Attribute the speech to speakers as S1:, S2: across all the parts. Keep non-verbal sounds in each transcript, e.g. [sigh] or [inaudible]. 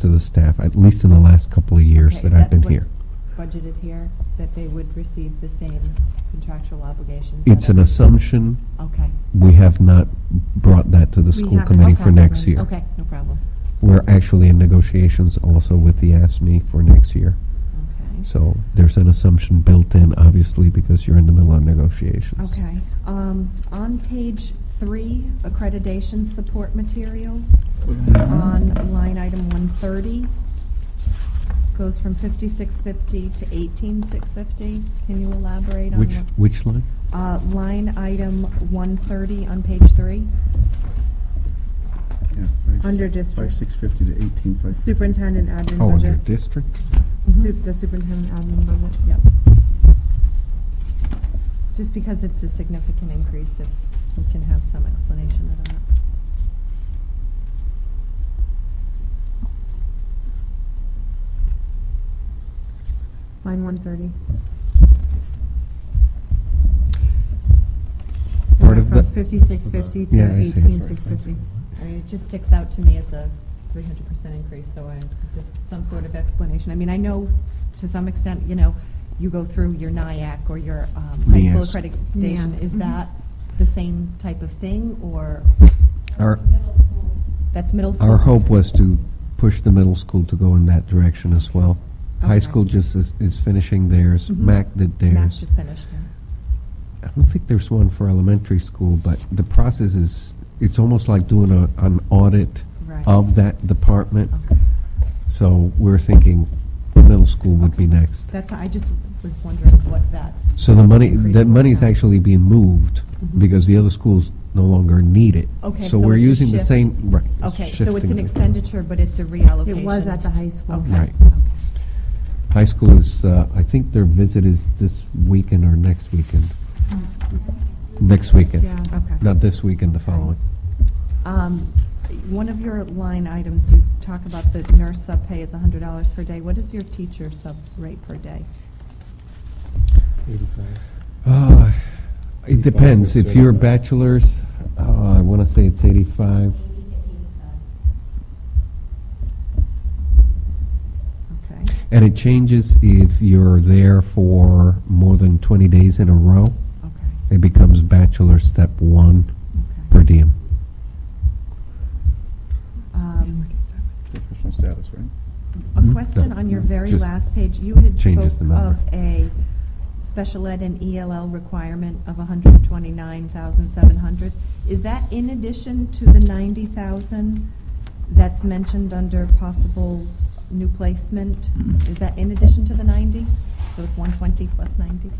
S1: to the staff, at least in the last couple of years
S2: Okay,
S1: that
S2: is
S1: I've been
S2: what's
S1: here.
S2: Budgeted here, that they would receive the same contractual obligations? that
S1: It's an
S2: every-
S1: assumption.
S2: Okay.
S1: We have not brought that to the
S3: We
S1: school
S3: haven't.
S1: committee
S2: Okay,
S1: for next
S2: then,
S1: year.
S2: Okay, no problem.
S1: We're actually in negotiations also with the ASME for next year.
S2: Okay.
S1: So there's an assumption built in, obviously, because you're in the middle of negotiations.
S3: Okay. Um, On page three, accreditation support material,
S2: Uh,
S3: on line item 130, goes from 5650 to 18650. Can you elaborate on
S1: Which,
S3: what-
S1: which line?
S3: Uh, Line item 130 on page three.
S4: Yeah, five-
S3: Under districts.
S4: Five, six fifty to eighteen, five. fifty.
S3: Superintendent admin
S1: Oh, under
S3: budget.
S1: district?
S3: Su- The superintendent admin budget, yep.
S2: Just because it's a significant increase, if we can have some explanation of that.
S3: Line 130.
S1: Part of the-
S3: From 5650 to
S1: Yeah, I see.
S3: 18650.
S2: I mean, it just sticks out to me as a three hundred percent increase, so I, just some sort of explanation. I mean, I know s- to some extent, you know, you go through your NIAC or your um, high school
S1: Yes.
S2: accreditation.
S3: Yeah.
S2: Is
S3: Mhm.
S2: that the same type of thing, or
S1: Uh, Our,
S2: that's middle school?
S1: our hope was to push the middle school to go in that direction as well. High
S2: Okay. Mm-hmm.
S1: school just is, is finishing theirs.
S3: Mhm.
S1: MAC did theirs.
S2: Mac just finished. yeah.
S1: I don't think there's one for elementary school, but the process is, it's almost like doing a, an audit
S2: Right.
S1: of that department.
S2: Okay.
S1: So we're thinking middle school would be next.
S2: That's, I just was wondering what that,
S1: So the money, that
S2: Increase.
S1: money's actually being moved
S2: Mhm.
S1: because the other schools no longer need it.
S2: Okay,
S1: So
S2: so
S1: we're
S2: it's a
S1: using the
S2: shift.
S1: same, right. it's
S2: okay, so it's
S1: shifting
S2: an
S1: it.
S2: expenditure, but it's a reallocation.
S3: It was at the high school.
S2: Okay.
S1: Right.
S2: okay.
S1: High school is, uh, I think their visit is this weekend or next weekend.
S2: Mm-hmm.
S1: Next
S3: Yeah.
S1: weekend,
S2: Okay.
S1: not this weekend, the following.
S3: Um,
S2: One of your line items, you talk about the nurse sub pay is hundred dollars per day. What is your teacher sub rate per day?
S5: Eighty-five.
S1: Uh, It
S5: 85
S1: depends.
S5: or
S1: If you're a
S5: 75.
S1: bachelor's, uh, I want to say it's 85.
S2: Okay.
S1: And it changes if you're there for more than 20 days in a row.
S2: Okay.
S1: It becomes bachelor step one per
S2: Okay.
S1: diem.
S2: Um,
S4: Professional status, right?
S2: A
S1: Mhm.
S2: question
S1: No,
S2: on your
S1: no,
S2: very
S1: just
S2: last page. You had
S1: changes
S2: spoke
S1: the number.
S2: of a special ed and ELL requirement of hundred and twenty-nine thousand seven hundred. Is that in addition to the ninety thousand that's mentioned under possible new placement? Is that in addition to the ninety? So it's one twenty plus ninety?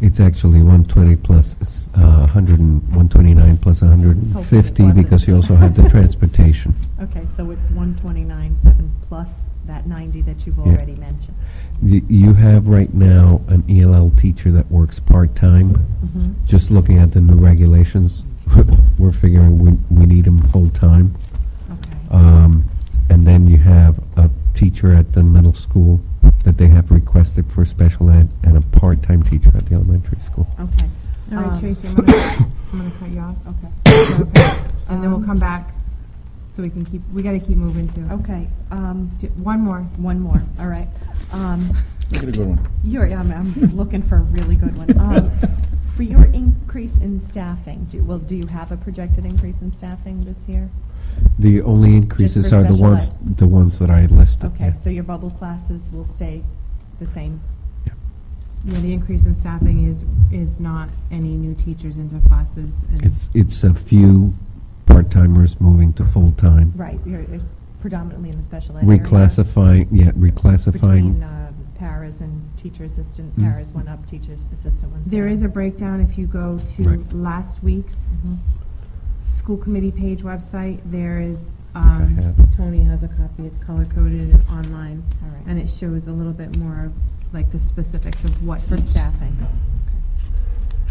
S1: It's actually 120 plus, it's, uh, 100 and 129 plus
S2: Let's hope that it
S1: 150
S2: wasn't.
S1: because you also
S2: [laughs]
S1: have the transportation.
S2: Okay, so it's one twenty-nine seven plus that ninety that you've
S1: Yeah.
S2: already mentioned.
S1: Y- You have right now an ELL teacher that works part-time.
S2: Mhm.
S1: Just looking at the new regulations, [laughs] we're figuring we we need him full-time.
S2: Okay,
S1: Um, And then you have a teacher at the middle school that they have requested for special ed and a part-time teacher at the elementary school.
S2: okay.
S3: All right,
S2: Um,
S3: Tracy,
S2: [coughs]
S3: I'm gonna, I'm gonna cut you off.
S2: Okay.
S3: Is that okay? And then
S2: Um,
S3: we'll come back, so we can keep, we gotta keep moving too.
S2: Okay, um,
S3: J- One more.
S2: one more, all right. Um,
S4: Make it a good one.
S2: You're, I'm, I'm looking for a really good one. Um, For your increase in staffing, do, well, do you have a projected increase in staffing this year?
S1: The only increases
S2: for
S1: are the
S2: special
S1: ones,
S2: ed.
S1: the ones that I listed.
S2: Okay,
S1: yeah.
S2: so your bubble classes will stay the same?
S1: Yeah.
S6: Yeah, the increase in staffing is, is not any new teachers into classes and.
S1: It's, it's a few part-timers moving to full-time.
S2: Right, you're uh, predominantly in the special ed area?
S1: Reclassifying, yeah,
S2: Between
S1: reclassifying.
S2: uh, paras and teacher assistant,
S1: Mm.
S2: paras went up, teacher assistant went down?
S6: There is a breakdown if you go to
S1: Right.
S6: last week's
S2: Mhm.
S6: school committee page website, there is,
S1: I
S6: um,
S1: have it.
S6: Tony has a copy, it's color coded and online.
S2: All right.
S6: And it shows a little bit more of like the specifics of what.
S2: For
S6: each-
S2: staffing?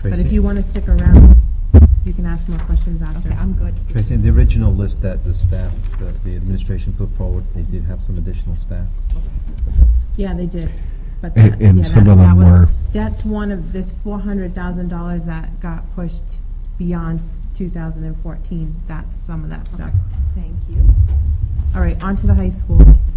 S6: But
S7: Tracy?
S6: if you wanna stick around, you can ask more questions after.
S2: Okay, I'm good.
S7: Tracy, in the original list that the staff, the the administration put forward, they did have some additional staff.
S6: Yeah, they did. But
S1: A-
S6: that,
S1: and
S6: yeah,
S1: some
S6: that,
S1: of
S6: that
S1: them
S6: was,
S1: were-
S6: That's one of this four hundred thousand dollars that got pushed beyond two thousand and fourteen. That's some of that stuff.
S2: Thank you.
S6: All right, on to the high school.